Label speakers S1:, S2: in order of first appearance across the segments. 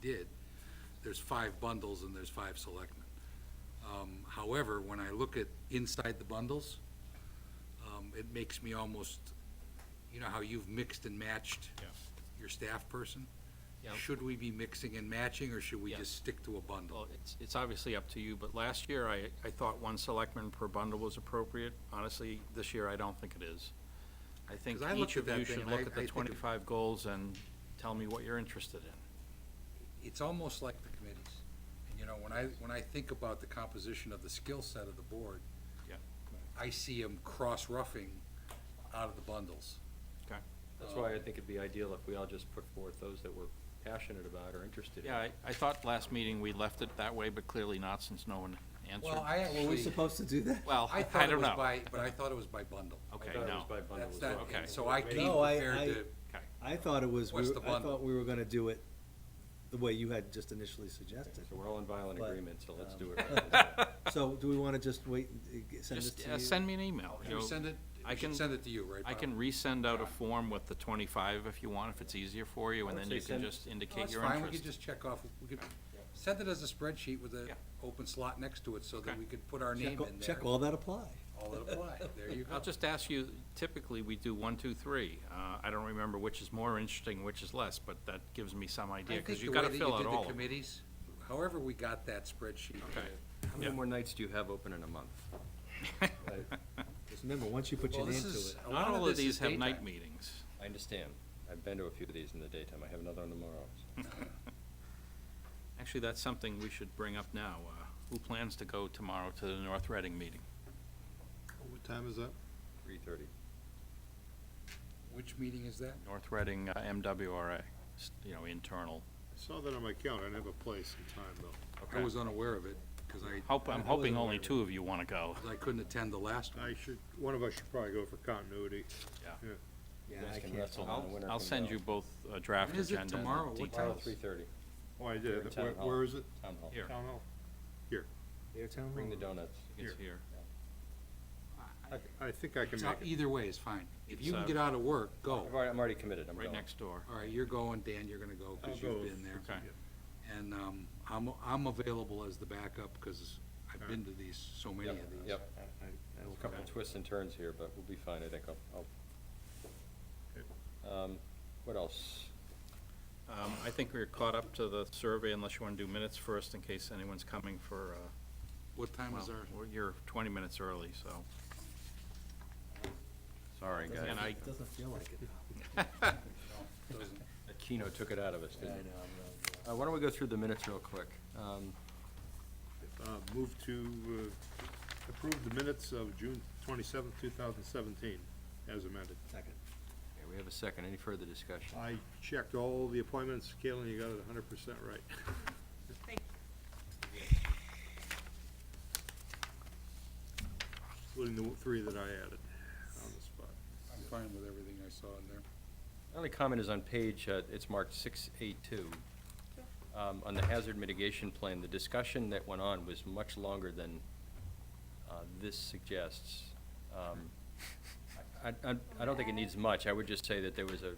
S1: did, there's five bundles and there's five selectmen. Um, However, when I look at inside the bundles, um, it makes me almost, you know how you've mixed and matched
S2: Yeah.
S1: your staff person?
S2: Yeah.
S1: Should we be mixing and matching, or should we
S2: Yeah.
S1: just stick to a bundle?
S2: Well, it's, it's obviously up to you, but last year, I, I thought one selectman per bundle was appropriate. Honestly, this year, I don't think it is. I think
S1: 'Cause I looked
S2: each
S1: at
S2: of
S1: that
S2: you
S1: thing,
S2: should
S1: and I-
S2: look at
S1: I
S2: the
S1: think it-
S2: twenty-five goals and tell me what you're interested in.
S1: It's almost like the committees. And, you know, when I, when I think about the composition of the skill set of the board,
S2: Yeah.
S1: I see them cross-roughing out of the bundles.
S2: Okay.
S3: That's why I think it'd be ideal if we all just put forth those that we're passionate about or interested in.
S2: Yeah, I, I thought last meeting we left it that way, but clearly not since no one
S1: Well,
S2: answered.
S1: I
S4: Are we
S1: actually,
S4: supposed to do that?
S2: Well,
S1: I
S2: I
S1: thought it
S2: don't
S1: was
S2: know.
S1: by, but I thought it was by bundle.
S2: Okay,
S3: I thought it was
S2: no.
S3: by bundle
S1: That's
S3: as
S1: that,
S3: well.
S2: okay.
S1: so I came
S4: No, I-
S1: prepared
S4: I-
S1: to,
S2: Okay,
S4: I thought it was, we
S1: What's
S4: were-
S1: the
S4: I
S1: bundle?
S4: thought we were gonna do it the way you had just initially suggested.
S3: So we're all in violent
S4: But,
S3: agreement, so let's
S4: um,
S3: do it. right this time.
S4: So do we wanna just wait, and uh, g- send this
S2: Just
S4: to
S2: uh,
S4: you?
S2: send me an email.
S1: Can we
S2: You'll-
S1: send it,
S2: I
S1: we should
S2: can-
S1: send it to you, right,
S2: I
S1: Bob?
S2: can resend out a form with the twenty-five if you want, if it's easier for you, and
S3: I would
S2: then
S3: say
S2: you can
S3: send-
S2: just
S1: No,
S2: indicate
S1: It's
S2: your
S1: Oh, fine, we
S2: interest.
S1: could just check off, we could, send it as a spreadsheet with an
S2: Yeah.
S1: open slot next to it so that
S2: Okay.
S1: we could put our
S4: Check
S1: name
S4: all-
S1: in there.
S4: Check all that apply.
S1: All that apply, there you go.
S2: I'll just ask you, typically, we do one, two, three. Uh, I don't remember which is more interesting, which is less, but that gives me some idea, because you've got to fill out
S1: I think the way that you
S2: all
S1: did
S2: of
S1: the
S2: them.
S1: committees, however we got that spreadsheet. uh,
S2: Okay.
S3: How many
S2: Yeah.
S3: more nights do you have open in a month? I-
S4: Just remember, once you put
S1: Well,
S4: your name
S1: this
S4: to
S1: is,
S4: it.
S1: a
S2: Not
S1: lot
S2: all
S1: of
S2: of
S1: this is
S2: these have night
S1: daytime.
S2: meetings.
S3: I understand. I've been to a few of these in the daytime. I have another one tomorrow. so.
S2: Actually, that's something we should bring up now. Uh, Who plans to go tomorrow to the North Reading meeting?
S5: What time is that?
S3: Three thirty.
S1: Which meeting is that?
S2: North Reading uh, MWRA, s- you know, internal.
S5: I saw that on my calendar. I didn't have a place and time, though.
S1: I
S2: Okay.
S1: was unaware of it, because I,
S2: Hope, I'm
S4: I
S2: hoping
S4: wasn't aware
S2: only
S4: of it.
S2: two of you want to go.
S1: 'cause I couldn't attend the last one.
S5: I should, one of us should probably go for continuity.
S2: Yeah.
S4: Yeah,
S3: You guys
S4: I
S3: can
S4: can't.
S3: wrestle
S4: I'll-
S3: on the winner
S2: I'll
S3: can
S2: send
S3: go.
S2: you both a draft
S1: When is it
S2: agenda and
S1: tomorrow?
S2: the
S1: What
S2: details.
S3: Tomorrow, three thirty,
S5: Oh, I
S3: Here
S5: did.
S3: in
S5: Where,
S3: town hall.
S5: where is it?
S3: town hall.
S2: Here.
S5: Town hall.
S4: Their town
S3: Bring the
S4: hall.
S3: donuts.
S2: It's here.
S5: I- I think I can
S1: It's
S5: make
S1: not-
S5: it.
S1: Either way is fine. If you
S2: It's,
S1: can
S2: uh,
S1: get out of work,
S3: I've
S1: go.
S3: already, I'm already committed. I'm
S2: Right
S3: going.
S2: next door.
S1: All right, you're going, Dan, you're gonna go, because
S5: I'll
S1: you've
S5: go.
S1: been there.
S2: Okay.
S1: And um, I'm, I'm available as the backup, because I've been to these, so many of
S3: Yep,
S1: these.
S3: Yep.
S5: I will
S3: A couple
S5: come.
S3: twists and turns here, but we'll be fine, I think. I'll, I'll. Um, What else?
S2: Um, I think we're caught up to the survey unless you want to do minutes first in case anyone's coming for, uh,
S1: What time
S2: well,
S1: is our,
S2: we're- you're 20 minutes early, so.
S3: Sorry,
S4: Doesn't-
S2: And I-
S4: It doesn't feel like it.
S1: doesn't-
S3: Keno took it out of us,
S4: Yeah,
S3: didn't
S4: I
S3: it?
S4: know, I'm not-
S3: Uh, Why don't we go through the minutes real quick? Um,
S5: Uh, Move to uh, approve the minutes of June twenty-seventh, two thousand seventeen, as amended.
S4: Second.
S3: okay, We have a second. Any further discussion?
S5: I checked all the appointments. Caitlin, you got it hundred percent right. Including the three that I added on the spot.
S1: I'm fine with everything I saw in there.
S3: My only comment is on page, uh, it's marked 6A2. Um, On the hazard mitigation plan, the discussion that went on was much longer than uh, this suggests. Um, I I- I don't think it needs much. I would just say that there was a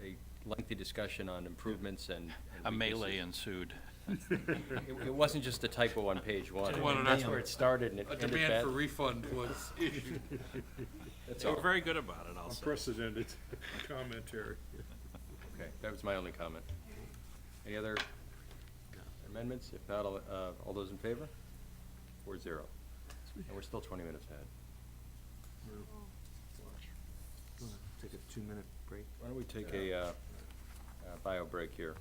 S3: a lengthy discussion on improvements and. and
S2: A melee
S3: weaknesses.
S2: ensued.
S3: It it wasn't just a typo on page one.
S2: Well,
S3: That's where it started and it
S1: A
S3: ended
S1: demand
S3: bad.
S1: for refund was issued.
S3: That's
S2: They were
S3: all.
S2: very good about it, I'll say.
S5: Unprecedented commentary.
S3: Okay, that was my only comment. Any other amendments? If not, all, uh, all those in favor? Four zero. And we're still twenty minutes ahead.
S4: Take a two-minute break.
S3: Why don't we take a, uh, uh, bio break here?